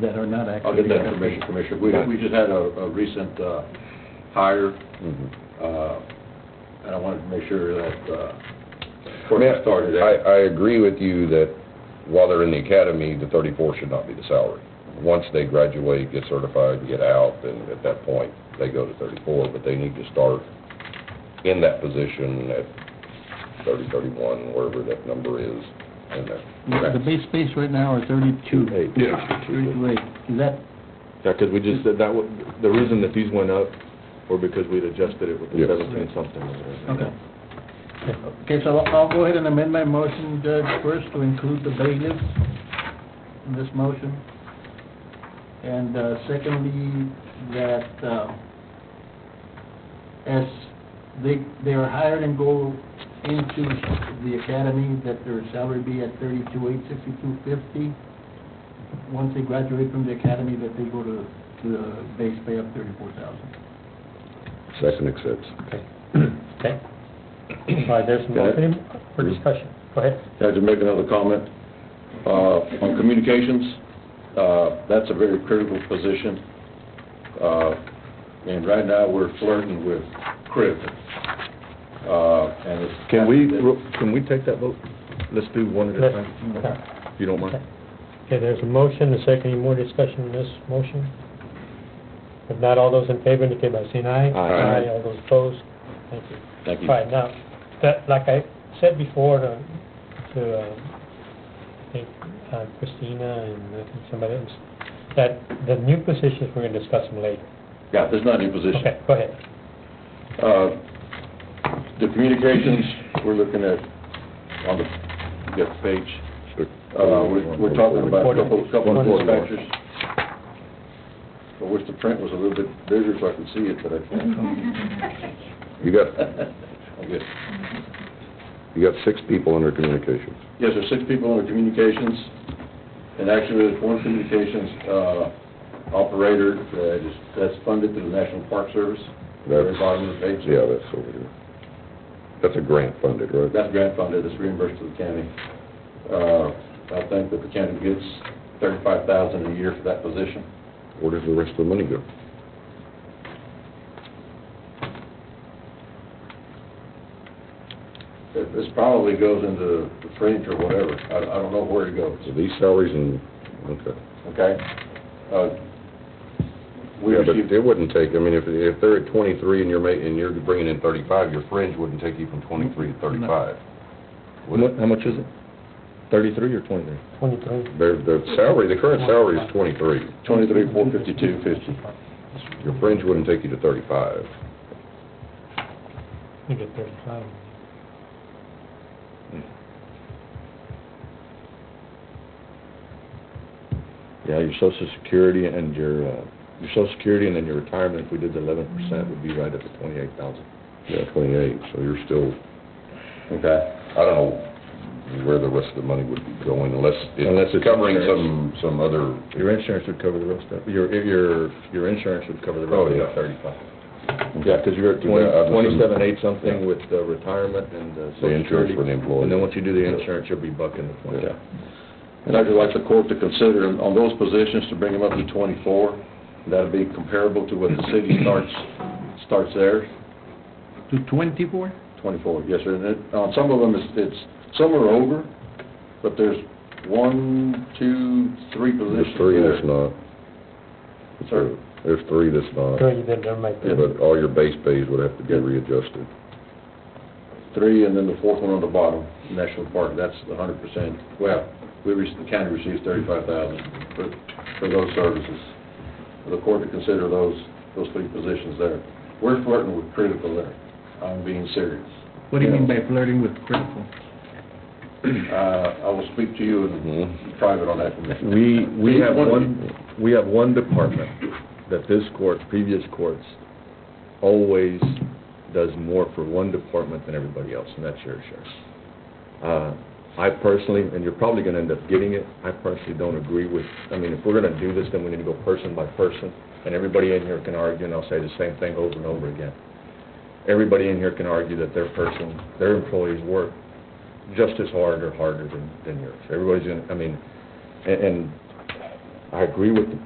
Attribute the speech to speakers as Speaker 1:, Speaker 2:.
Speaker 1: that are not
Speaker 2: I'll
Speaker 1: actually.
Speaker 2: get that information, Commissioner. We, we just had a, a recent, uh, hire,
Speaker 3: Mm-hmm.
Speaker 2: uh, and I wanted to make sure that, uh,
Speaker 3: I mean,
Speaker 2: person started that.
Speaker 3: I, I agree with you that while they're in the academy, the thirty-four should not be the salary. Once they graduate, get certified, get out, then at that point, they go to thirty-four, but they need to start in that position at thirty, thirty-one, wherever that number is. in that-
Speaker 1: The base space right now are thirty-two.
Speaker 4: Eight.
Speaker 2: Yeah.
Speaker 1: Thirty-two eight. Is that,
Speaker 4: Yeah, because we just said that, would- the reason that these went up were because we'd adjusted it with the
Speaker 3: Yes.
Speaker 4: seventeen something. or whatever.
Speaker 1: okay. Okay, so I'll I'll go ahead and amend my motion, Judge, first to include the bailiffs in this motion. And uh, secondly, that uh, as they, they are hired and go into the academy, that their salary be at thirty-two eight sixty-two fifty. Once they graduate from the academy, that they go to, to the base pay of thirty-four thousand.
Speaker 3: Second accepts.
Speaker 5: Okay. Okay. All right, there's a motion for discussion. Go ahead.
Speaker 2: Can I just make another comment? Uh, on communications, uh, that's a very critical position. Uh, and right now, we're flirting with crib. Uh, and it's.
Speaker 4: Can we, ro- can we take that vote? Let's do one at a
Speaker 5: Let's-
Speaker 4: time,
Speaker 5: Okay,
Speaker 4: if you don't mind.
Speaker 5: Okay, there's a motion, a second, any more discussion on this motion? If not, all those in favor indicate by saying aye.
Speaker 4: Aye.
Speaker 5: All those opposed, thank you.
Speaker 2: Thank you.
Speaker 5: All right, now, that, like I said before to, to, uh, I think uh, Christina and I think somebody else, that the new positions, we're gonna discuss them later.
Speaker 2: Yeah, there's not any position.
Speaker 5: Okay, go ahead.
Speaker 2: Uh, The communications, we're looking at, on the, get the page, uh, we're, we're talking about a couple, couple of dispatchers. I wish the print was a little bit bigger so I could see it, but I can't.
Speaker 3: You got,
Speaker 2: I guess.
Speaker 3: you got six people under communications.
Speaker 2: Yes, there's six people under communications, and actually, there's one communications, uh, operator that is, that's funded through the National Park Service, very
Speaker 3: That's-
Speaker 2: bottom of the page.
Speaker 3: Yeah, that's over here. That's a grant funded, right?
Speaker 2: That's grant funded, it's reimbursed to the county. Uh, I think that the county gets thirty-five thousand a year for that position.
Speaker 3: Where does the rest of the money go?
Speaker 2: It- This probably goes into the fringe or whatever, I, I don't know where it goes,
Speaker 3: So these salaries and, okay.
Speaker 2: okay? Uh, We
Speaker 3: Yeah, but
Speaker 2: received,
Speaker 3: it wouldn't take, I mean, if, if they're at twenty-three and you're ma, and you're bringing in thirty-five, your fringe wouldn't take you from twenty-three to thirty-five. Would
Speaker 4: What-
Speaker 3: it?
Speaker 4: How much is it? Thirty-three or twenty-three?
Speaker 5: Twenty-three.
Speaker 3: Their, their salary, the current salary is twenty-three.
Speaker 2: twenty-three, four fifty-two, fifty.
Speaker 3: Your fringe wouldn't take you to thirty-five.
Speaker 5: You get thirty-five.
Speaker 4: Yeah, your social security and your, uh, your social security and then your retirement, if we did the eleven percent, would be right at the twenty-eight thousand.
Speaker 3: Yeah, twenty-eight, so you're still,
Speaker 2: Okay.
Speaker 3: I don't know where the rest of the money would be going unless,
Speaker 4: Unless
Speaker 3: unless
Speaker 4: it's
Speaker 3: it's covering some,
Speaker 4: insurance.
Speaker 3: some other,
Speaker 4: Your insurance would cover the rest of, your, your, your insurance would cover the
Speaker 3: Oh,
Speaker 4: rest of
Speaker 3: yeah.
Speaker 4: the thirty-five. Yeah, because you're at
Speaker 3: Yeah, I was-
Speaker 4: twenty-seven, eight something with the retirement and the
Speaker 2: uh,
Speaker 3: the
Speaker 4: social
Speaker 3: insurance
Speaker 4: security.
Speaker 3: for the employee.
Speaker 4: And then once you do the insurance, you'll be bucking the twenty.
Speaker 2: Yeah. And I'd just like the court to consider on those positions to bring them up to 24. That'd be comparable to what the city starts, starts theirs.
Speaker 1: To twenty-four?
Speaker 2: 24, yes, sir. And it- on some of them, it's, it's, some are over, but there's one, two, three
Speaker 3: There's
Speaker 2: positions
Speaker 3: three that's
Speaker 2: there.
Speaker 3: not.
Speaker 2: Sir?
Speaker 3: There's three that's not,
Speaker 5: Sure, you did, there might be.
Speaker 3: but all your base pays would have to get readjusted.
Speaker 2: Three, and then the fourth one on the bottom, National Park, that's the 100%. Well, we, rec- the county receives 35,000 for, for those services. For the court to consider those, those three positions there. We're flirting with critical there. I'm being serious.
Speaker 1: What do you mean by flirting with critical?
Speaker 2: Uh, I will speak to you in
Speaker 3: Mm-hmm.
Speaker 2: private on that. Commissioner.
Speaker 4: We, we
Speaker 2: Each
Speaker 4: have
Speaker 2: one-
Speaker 4: one, we have one department that this court, previous courts, always does more for one department than everybody else, and that's your sheriff. Uh, I personally, and you're probably gonna end up getting it, I personally don't agree with, I mean, if we're gonna do this, then we need to go person by person, and everybody in here can argue, and I'll say the same thing over and over again. Everybody in here can argue that their person, their employees work just as hard or harder than, than yours. Everybody's gonna, I mean, and, and
Speaker 3: I agree with the